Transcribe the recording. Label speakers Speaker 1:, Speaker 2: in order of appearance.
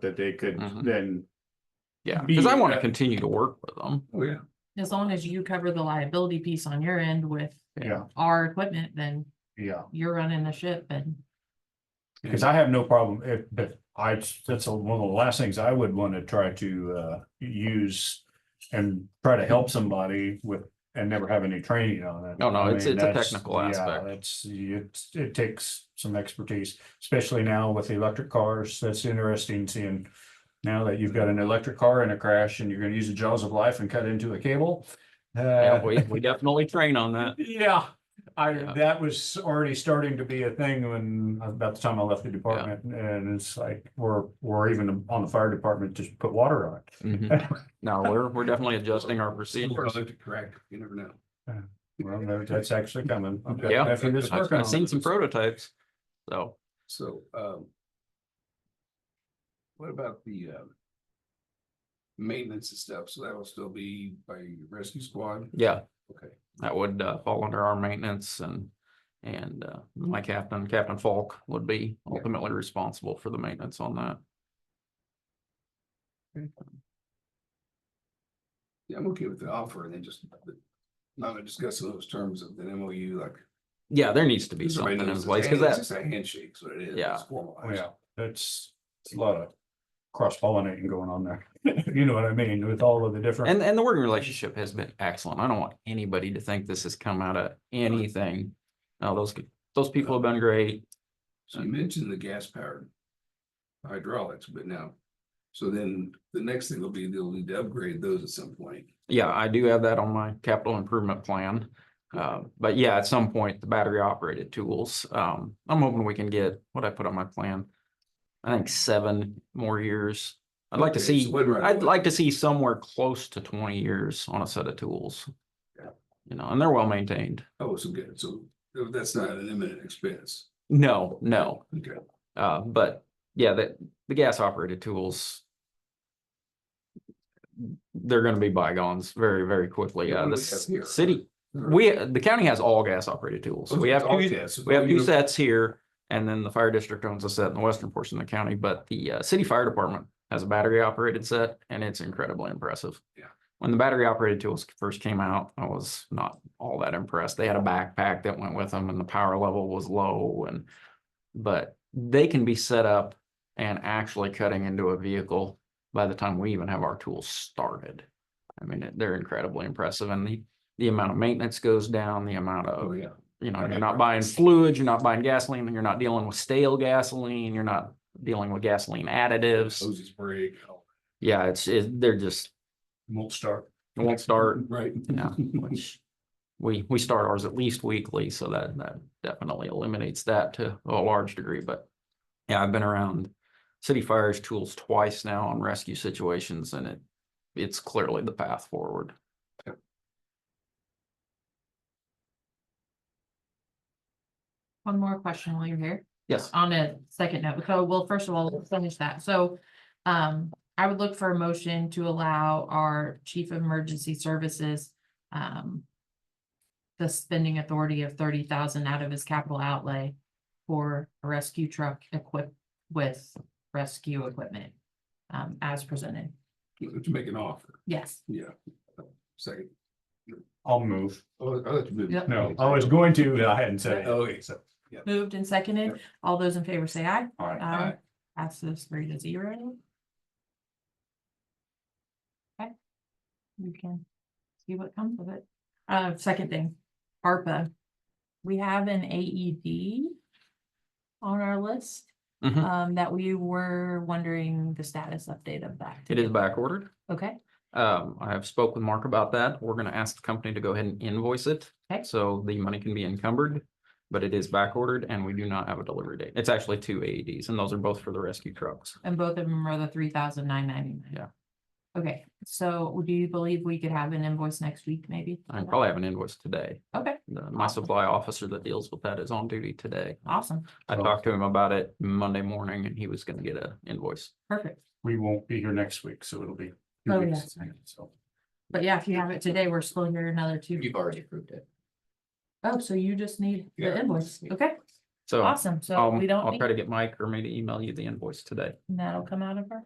Speaker 1: that they could
Speaker 2: Mhm.
Speaker 1: then,
Speaker 2: Yeah, because I
Speaker 1: Be-
Speaker 2: want to
Speaker 1: uh,
Speaker 2: continue to work with them.
Speaker 3: Oh, yeah.
Speaker 4: As long as you cover the liability piece on your end with
Speaker 1: yeah,
Speaker 4: our equipment, then
Speaker 1: yeah.
Speaker 4: you're running the ship and.
Speaker 1: Because I have no problem if, if I, that's a- one of the last things I would want to try to, uh, use and try to help somebody with, and never have any training on it.
Speaker 2: Oh, No, no,
Speaker 1: I
Speaker 2: it's-
Speaker 1: mean,
Speaker 2: it's a
Speaker 1: that's-
Speaker 2: technical
Speaker 1: yeah,
Speaker 2: aspect.
Speaker 1: It's, it, it takes some expertise, especially now with the electric cars. That's interesting seeing now that you've got an electric car in a crash and you're gonna use the jaws of life and cut into a cable. Uh,
Speaker 2: Yeah, we, we definitely train on that.
Speaker 1: yeah, I,
Speaker 2: Yeah.
Speaker 1: that was already starting to be a thing when, about the time I left the department, and it's like, we're, we're even on the fire department, just put water on it.
Speaker 2: Mhm. No, we're, we're definitely adjusting our procedures.
Speaker 3: Product correct, you never know.
Speaker 1: Well, no, that's actually coming. I've got
Speaker 2: Yeah.
Speaker 1: Bethany that's
Speaker 2: I've,
Speaker 1: working
Speaker 2: I've
Speaker 1: on
Speaker 2: seen
Speaker 1: it.
Speaker 2: some prototypes. So,
Speaker 3: So, um. What about the, um. Maintenance and stuff, so that will still be by rescue squad,
Speaker 2: yeah,
Speaker 3: okay,
Speaker 2: that would uh, fall under our maintenance and, and uh, my captain, Captain Falk would be
Speaker 3: Yeah.
Speaker 2: ultimately responsible for the maintenance on that.
Speaker 3: yeah, I'm okay with the offer, and then just. Not to discuss those terms of the MOU, like.
Speaker 2: Yeah, there needs to be
Speaker 3: everybody
Speaker 2: something in
Speaker 3: knows it's a
Speaker 2: place
Speaker 3: hand-
Speaker 2: because that's,
Speaker 3: It's just a handshake, so it is.
Speaker 2: Yeah.
Speaker 3: It's
Speaker 1: Oh,
Speaker 3: formalized.
Speaker 1: Yeah, that's, it's a lot of cross pollinating going on there. You know what I mean, with all of the different,
Speaker 2: and, and the working relationship has been excellent. I don't want anybody to think this has come out of anything. No, those, those people have been great.
Speaker 3: So you mentioned the gas powered. Hydraulics, but now. So then the next thing will be they'll need to upgrade those at some point.
Speaker 2: Yeah, I do have that on my capital improvement plan. Uh, but yeah, at some point, the battery operated tools, um, I'm hoping we can get what I put on my plan. I think seven more years. I'd like to
Speaker 3: Okay, so
Speaker 2: see,
Speaker 3: when right
Speaker 2: I'd
Speaker 3: away.
Speaker 2: like to see somewhere close to twenty years on a set of tools.
Speaker 3: Yeah.
Speaker 2: You know, and they're well maintained.
Speaker 3: Oh, so good, so uh, that's not an imminent expense.
Speaker 2: No, no,
Speaker 3: Okay,
Speaker 2: uh, but yeah, the, the gas operated tools. They're gonna be bygones very, very quickly.
Speaker 3: Yeah,
Speaker 2: Uh,
Speaker 3: what do
Speaker 2: the
Speaker 3: we have here?
Speaker 2: s- city, we, the county has all gas operated tools. So We have
Speaker 3: All
Speaker 2: two,
Speaker 3: gas, so
Speaker 2: we have two
Speaker 3: you-
Speaker 2: sets here and then the fire district owns a set in the western portion of the county, but the uh, city fire department has a battery operated set and it's incredibly impressive.
Speaker 3: Yeah.
Speaker 2: When the battery operated tools first came out, I was not all that impressed. They had a backpack that went with them and the power level was low and but they can be set up and actually cutting into a vehicle by the time we even have our tools started. I mean, they're incredibly impressive and the, the amount of maintenance goes down, the amount of
Speaker 3: Oh, yeah.
Speaker 2: you know,
Speaker 3: I
Speaker 2: you're
Speaker 3: got
Speaker 2: not buying fluids, you're not buying gasoline, you're not dealing with stale gasoline, you're not dealing with gasoline additives.
Speaker 3: Hoses break. all-
Speaker 2: Yeah, it's, it, they're just,
Speaker 1: won't start.
Speaker 2: it won't start,
Speaker 3: Right.
Speaker 2: yeah, which we, we start ours at least weekly, so that, that definitely eliminates that to a large degree, but yeah, I've been around city fires tools twice now on rescue situations and it, it's clearly the path forward.
Speaker 4: One more question while you're here.
Speaker 2: Yes,
Speaker 4: On a second note, so well, first of all, let's finish that. So um, I would look for a motion to allow our chief of emergency services um the spending authority of thirty thousand out of his capital outlay for a rescue truck equipped with rescue equipment um, as presented.
Speaker 3: To make an offer,
Speaker 4: Yes,
Speaker 3: yeah. Second.
Speaker 1: I'll move.
Speaker 3: Oh, I'll let you move. Oh,
Speaker 4: Yep.
Speaker 1: No, I was going to, but I hadn't said it.
Speaker 3: Okay, so.
Speaker 4: moved and seconded. All those in favor say aye.
Speaker 1: All right.
Speaker 4: Aye.
Speaker 3: Aye.
Speaker 4: Passes three to zero. Okay. You can see what comes of it. Uh, second thing, ARPA. We have an AED on our list,
Speaker 2: Mhm.
Speaker 4: um, that we were wondering the status update of that.
Speaker 2: it is back ordered.
Speaker 4: Okay,
Speaker 2: Um, I have spoke with Mark about that. We're gonna ask the company to go ahead and invoice it.
Speaker 4: Okay.
Speaker 2: So the money can be encumbered, but it is back ordered and we do not have a delivery date. It's actually two AEDs and those are both for the rescue trucks.
Speaker 4: and both of them are the three thousand nine ninety-nine.
Speaker 2: Yeah.
Speaker 4: Okay, so do you believe we could have an invoice next week, maybe?
Speaker 2: I probably have an invoice today.
Speaker 4: Okay,
Speaker 2: The- My
Speaker 4: Awesome.
Speaker 2: supply officer that deals with that is on duty today.
Speaker 4: awesome,
Speaker 2: I talked to him about it Monday morning and he was gonna get a invoice.
Speaker 4: perfect.
Speaker 1: We won't be here next week, so it'll be. two
Speaker 4: Oh,
Speaker 1: weeks,
Speaker 4: yes, right.
Speaker 1: so.
Speaker 4: But yeah, if you have it today, we're still here another two.
Speaker 5: You've already approved it.
Speaker 4: Oh, so you just need the
Speaker 3: Yeah.
Speaker 4: invoice. Okay,
Speaker 2: So
Speaker 4: awesome. So
Speaker 2: I'll,
Speaker 4: we don't,
Speaker 2: I'll
Speaker 4: need-
Speaker 2: try to get Mike or maybe email you the invoice today.
Speaker 4: and that'll come out of our